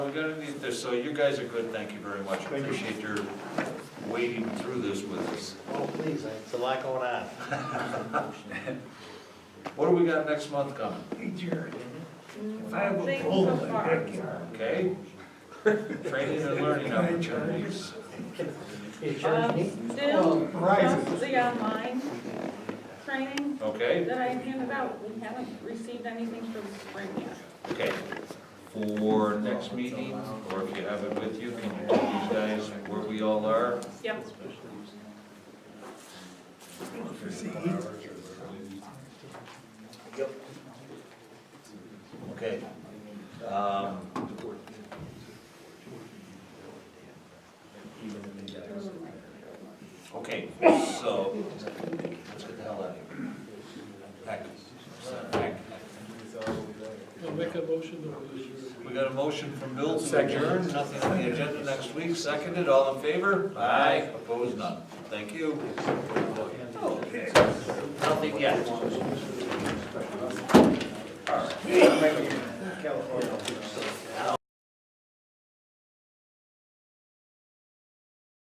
so you guys are good, thank you very much. Thank you. Appreciate your wading through this with us. Oh, please, it's a lot going on. What do we got next month coming, Hey Jared, if I have a Things pole in so my far. backyard, okay? Training and learning can I charge you opportunities. something? Um, Still, Oh, Verizon. some of the online training Okay, that I handed out, we haven't received anything for the spring yet. okay. For next meeting, or if you have it with you, can you tell these guys where we all are? Yep, Okay. Um, Okay, so, let's get the hell out of here. Back, back. I'll make a motion to adjourn. We got a motion from Bill to adjourn, nothing on the agenda next week, seconded, all in favor? Aye. Opposed, none. Thank you. Nothing yet. California.